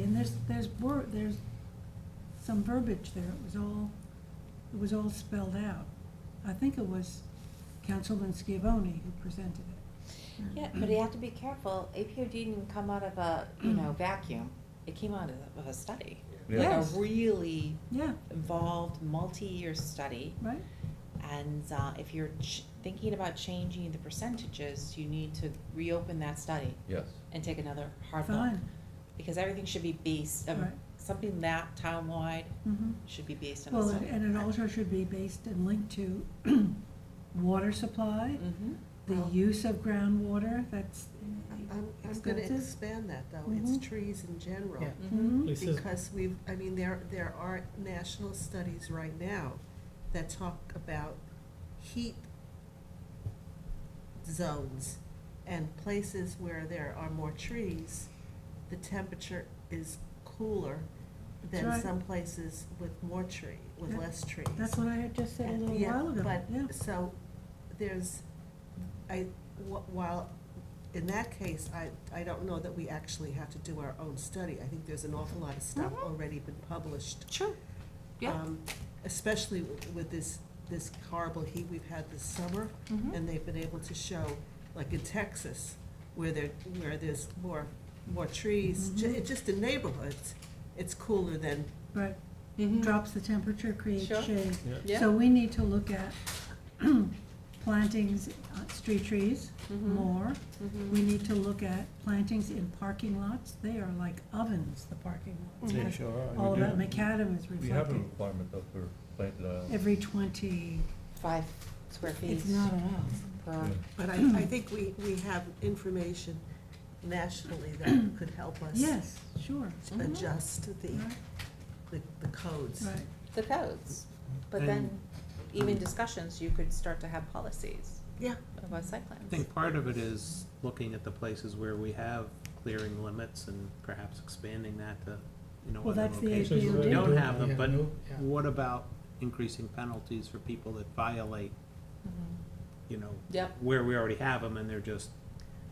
there's, there's word, there's some verbiage there, it was all, it was all spelled out. I think it was Councilman Scavone who presented it. Yeah, but you have to be careful. APOD didn't come out of a, you know, vacuum. It came out of- of a study. Yeah. Like Mm. Yes. a really Yeah, involved, multi-year study. right? And uh, if you're ch- thinking about changing the percentages, you need to reopen that study Yes. and take another hard look. Fine. Because everything should be based, um, Right. something that town-wide Mhm. should be based on a Well, study. and it also should be based and linked to water supply, Mhm. the Mm. Well- use of groundwater, that's. I'm, I'm gonna Expensive. expand that though, it's Mhm. trees in general. Yeah. Mhm. Mhm. Lisa's- Because we've, I mean, there, there are national studies right now that talk about heat zones and places where there are more trees, the temperature is cooler That's than right. some places with more tree, with Yeah. less trees. That's what I had just said a And- little yeah, while ago, yeah. But, so, there's, I, wh- while, in that case, I, I don't know that we actually have to do our own study. I think there's an awful lot of stuff Mm-hmm. Mhm. already been published. Sure, yeah. um, Especially with- with this, this horrible heat we've had this summer, Mm-hmm. Mhm. and they've been able to show, like in Texas, where there, where there's more, more trees, ju- Mhm. just in neighborhoods, it's cooler than, Right, Mhm. drops the temperature, creates Sure. shade. Yeah. So we need to look at plantings, uh, street trees Mhm. more. Mhm. We need to look at plantings in parking lots. They are like ovens, the parking lots. Mm-hmm. They Like, sure are. All We of that do- macadam is We have a reflected. requirement though for planted aisles. Every twenty, Five square feet it's not enough. per, Yeah. but I, I think we, we have information nationally that could help us. Yes, sure, Mhm. adjust the, right, the, the codes. right. the codes. But And- then even discussions, you could start to have policies Yeah, about site plans. I think part of it is looking at the places where we have clearing limits and perhaps expanding that to, you know, Well, other that's the locations. So you We already don't do have them, that, but no, yeah. what about increasing penalties for people that violate, Mhm. Mm-hmm. you know, Yep. where we already have them and they're just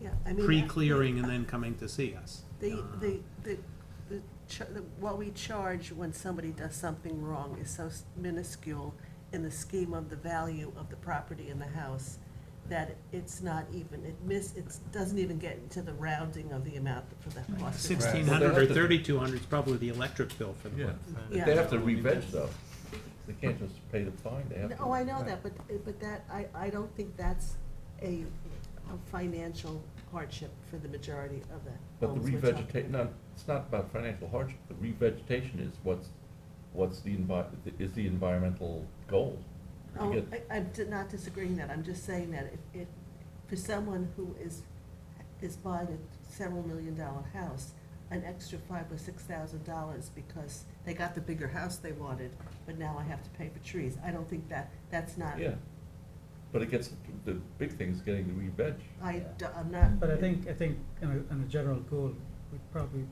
yeah, I mean. pre-clearing and then coming to see us? The, Uh, the, the, the, cha- the- what we charge when somebody does something wrong is so minuscule in the scheme of the value of the property in the house that it's not even, it miss, it doesn't even get into the rounding of the amount for the cost. of- Sixteen hundred or thirty-two hundred is probably the electric bill for the Yeah. month. But Yeah. They have to re-veg though. They can't just pay the fine, they have to. Oh, I know that, but, but that, I, I don't think that's a, a financial hardship for the majority of the But the homes we're talking revegeta, no, it's not about financial hardship, the revegetation is what's, what's the envi, is the environmental goal. to Oh, get- I, I'm di- not disagreeing that, I'm just saying that if, if, for someone who is, is buying a several million dollar house, an extra five or six thousand dollars because they got the bigger house they wanted, but now I have to pay for trees, I don't think that, that's not, Yeah, but it gets, the big thing is getting the re-veg. I, d- I'm not. But I think, I think in a, in a general goal, we'd probably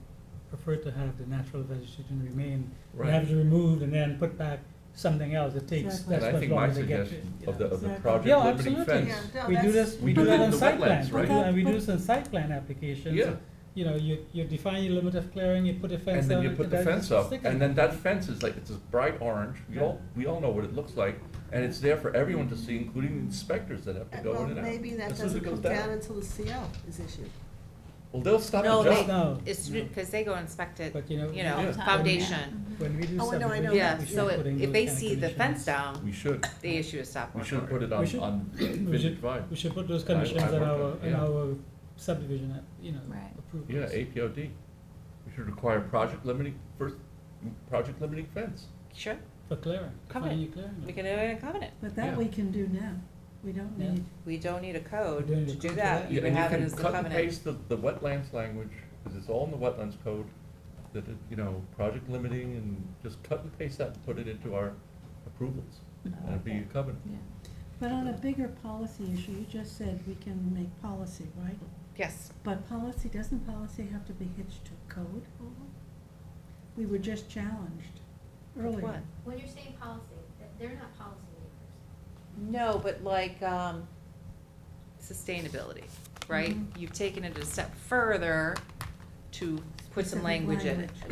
prefer to have the natural vegetation remain, Right. have it removed and then put back something else, it takes, Exactly. that's And I as think long my as they get. suggestion it, of the, yeah. of the Exactly. project Yeah, limiting absolutely. fence. Yeah, no, We do that's- this, we We do do that it in on the site wetlands, plans, right? and we do But- this in site plan applications. Yeah. You know, you, you define your limit of clearing, you put a fence And up. then you put the that fence is up, sticking. and then that fence is like, it's this bright orange, we Yeah. all, we all know what it looks like, and it's there for everyone to see, including the inspectors that have to Uh, go Well, in and out. maybe that As soon as it doesn't come goes down until the CO is issued. Well, they'll stop No, the they, job, No, it's, no. because they go inspect it, But, you you know, know, Yeah. foundation. When we do Oh, I know, I know. subdivision, Yeah, we should so put if, if in those they kind of see the fence conditions. down, we should, they issue a stop we work should put order. it We on, should- on We vintage should, vibe. we should put those I- conditions I in worked our, on it, in yeah. our subdivision, uh, you know, Right. Yeah, approvals. APOD. We should require project limiting, first, project limiting fence. Sure, For clearing, Covenant. defining your clearing. we can do it in a covenant. But that we can do now. We don't Yeah. need, We don't need a code We don't need to a do code for that. that. You Yeah, can and have it can as the cut and covenant. Paste the, the wetlands language, because it's all in the wetlands code, that, it- you know, project limiting, and just cut and paste that and put it into our approvals. And it'd be a covenant. Yeah. but on a bigger policy issue, you just said we can make policy, right? Yes, But policy, doesn't policy have to be hitched to a code? We were just challenged earlier. with what? When you're saying policy, th- they're not policymakers. No, but like, um, sustainability, right? Mhm. You've taken it a step further to put some Specific language in it. language.